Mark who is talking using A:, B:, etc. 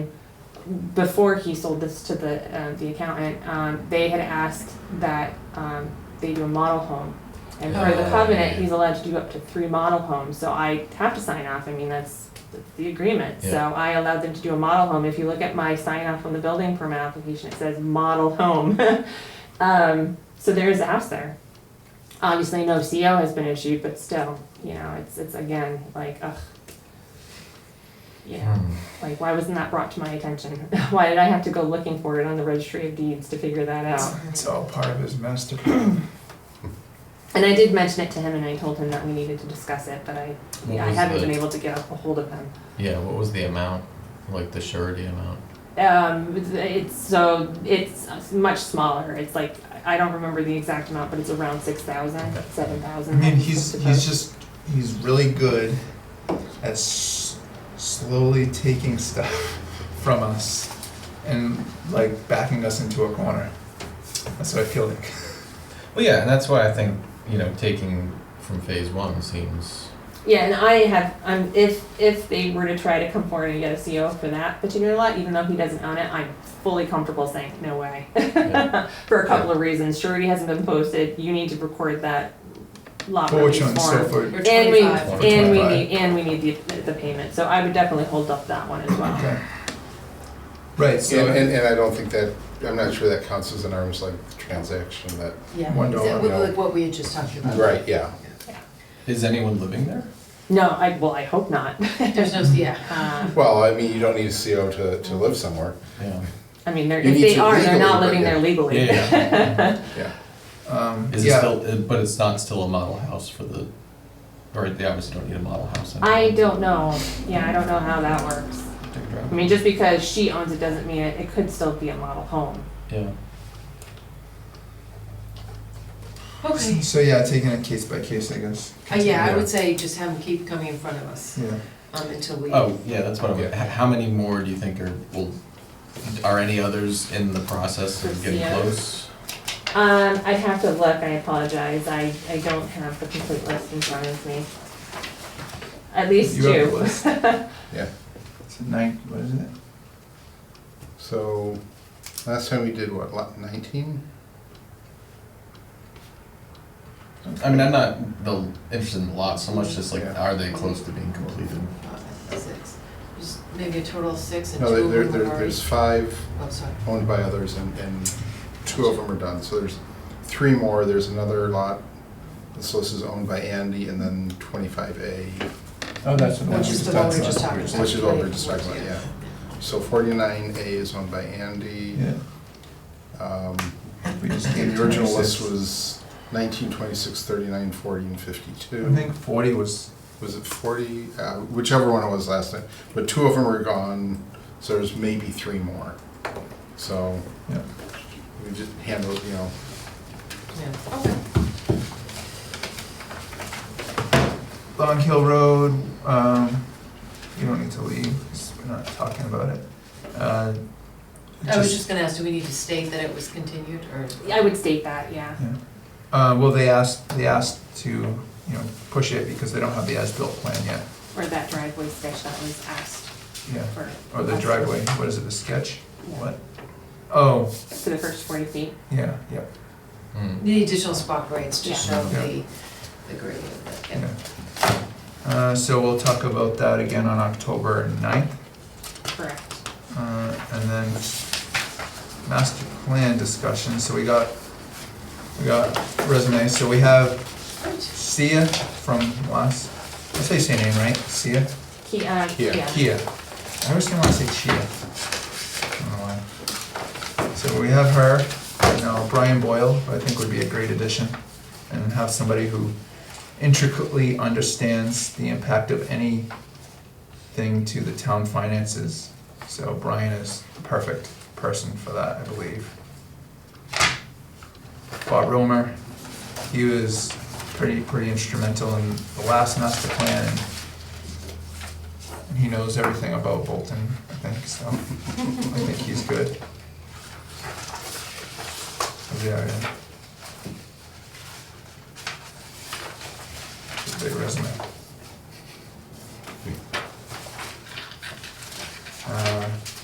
A: before he sold this to the, uh, the accountant, um, they had asked that, um, they do a model home. And per the
B: Oh.
A: covenant, he's allowed to do up to three model homes, so I have to sign off, I mean, that's the agreement. So
B: Yeah.
A: I allowed them to do a model home, if you look at my sign off on the building permit application, it says model home. Um, so there is a house there. Obviously, no CO has been issued, but still, you know, it's, it's again, like, ugh. Yeah.
B: Hmm.
A: Like, why wasn't that brought to my attention? Why did I have to go looking for it on the registry of deeds to figure that out?
C: It's all part of his master plan.
A: And I did mention it to him and I told him that we needed to discuss it, but I,
B: What
A: I
B: was
A: haven't been
B: the-
A: able to get a hold of him.
B: Yeah, what was the amount, like the surety amount?
A: Um, it's- it's, so, it's much smaller, it's like, I don't remember the exact amount, but it's around six thousand,
B: Okay.
A: seven
C: I
A: thousand.
C: mean, he's he's just he's really good at s- slowly taking stuff from us and like backing us into a corner. That's what I feel like.
B: Well, yeah, and that's why I think, you know, taking from phase one seems,
A: Yeah, and I have, um, if, if they were to try to come forward and get a CO for that particular lot, even though he doesn't own it, I'm fully comfortable saying, no way.
B: Yeah.
A: For a couple of reasons, surety hasn't been posted, you need to record that lot
C: For which
A: release
C: one? So
A: form.
C: for
D: Or
A: And we,
D: twenty-five.
B: Or
A: and we
C: 25.
A: need, and we need the, the payment, so I would definitely hold up that one as well.
C: okay. Right. So
E: And, and, and I don't think that, I'm not sure that counts as an arms length transaction, that,
D: Yeah,
C: One
D: exactly,
C: dollar,
E: no.
D: like what we had just talked about.
E: right, yeah.
B: is anyone living there?
A: No, I, well, I hope not.
D: There's no, yeah, um,
E: Well, I mean, you don't need a CO to, to live somewhere,
B: Yeah.
A: I mean, they're,
E: You
A: if
E: need
A: they
E: to
A: are, they're
E: legally,
A: not
E: but
A: living
E: yeah.
A: there legally.
B: Yeah, yeah.
E: yeah.
C: um,
B: Is it
C: yeah,
B: still, uh, but it's not still a model house for the, or they obviously don't need a model house.
A: I
B: anymore.
A: don't know, yeah, I don't know how that works.
B: Take a
A: I
B: drive.
A: mean, just because she owns it doesn't mean it, it could still be a model home.
B: Yeah,
D: okay.
C: So yeah, taking it case by case, I guess.
D: Uh, Yeah, I would say just have them keep coming in front of us,
C: Yeah.
D: um, until we.
B: oh, yeah, that's what I'm, h-
E: Yeah.
B: how many more do you think are, will, are any others in the process of getting
A: Yeah.
B: close?
A: Um, I'd have to look, I apologize, I, I don't have the complete list in front of me. At least
C: You have the
A: two.
C: list.
E: Yeah.
C: It's a nine. What is it?
E: So, last time we did what, lot nineteen?
B: I mean, I'm not the, interested in the lot so much, just like,
E: Yeah.
B: are they close to being completed?
D: Uh, Six, There's maybe a total of six and two
E: No, there,
D: of
E: there,
D: them are
E: there-
D: already.
E: there's five
D: Oh, sorry,
E: owned by others and, and two of them are done, so there's three more, there's another lot. This list is owned by Andy and then twenty-five A,
C: Oh, that's what
D: which
C: we
D: is
C: just
D: the one we
C: talked
D: were just
C: about.
D: talking about.
E: which is what we
D: are
E: we're just talking about, yeah. So forty-nine A is owned by Andy.
C: Yeah.
E: Um,
C: We just
E: And
C: gave
E: the original
C: 26.
E: list was 19, 26, 39, 40, and
C: I
E: 52.
C: think forty was
E: Was it 40? Uh, Whichever one it was last night. But two of them are gone, so there's maybe three more. So
C: yeah.
E: we just handled, you know,
D: Yeah, okay.
C: Long Hill Road. Um, you don't need to leave. 'cause We're not talking about it. Uh,
D: I was just gonna ask, do we need to state that it was continued, or?
A: I would state that, yeah.
C: Yeah. Uh, well, they asked they asked to you know push it because they don't have the as-built plan yet.
A: Or that driveway sketch that was asked
C: Yeah.
A: for.
C: Or Oh, the driveway. What is it? The sketch.
A: Yeah.
C: What? Oh,
A: For the first forty feet.
C: yeah, yeah,
B: Hmm.
D: The additional spot grades to
A: Yeah.
D: show
C: Yeah.
D: the, the grade of it, yeah.
C: yeah. Uh, so we'll talk about that again on October 9th.
A: Correct.
C: Uh, and then master plan discussion, so we got, we got resumes, so we have
D: Right.
C: Sia from last, I say your name right, Sia?
A: He, uh,
E: Kia.
A: yeah.
C: Kia, I always want to say Chia. I don't know why. So we have her, and now Brian Boyle, who I think would be a great addition, and have somebody who intricately understands the impact of anything to the town finances. So Brian is the perfect person for that, I believe. Bob Romer, he was pretty, pretty instrumental in the last master plan, and and he knows everything about Bolton, I think, so I think he's good. So, Yeah, yeah. Uh,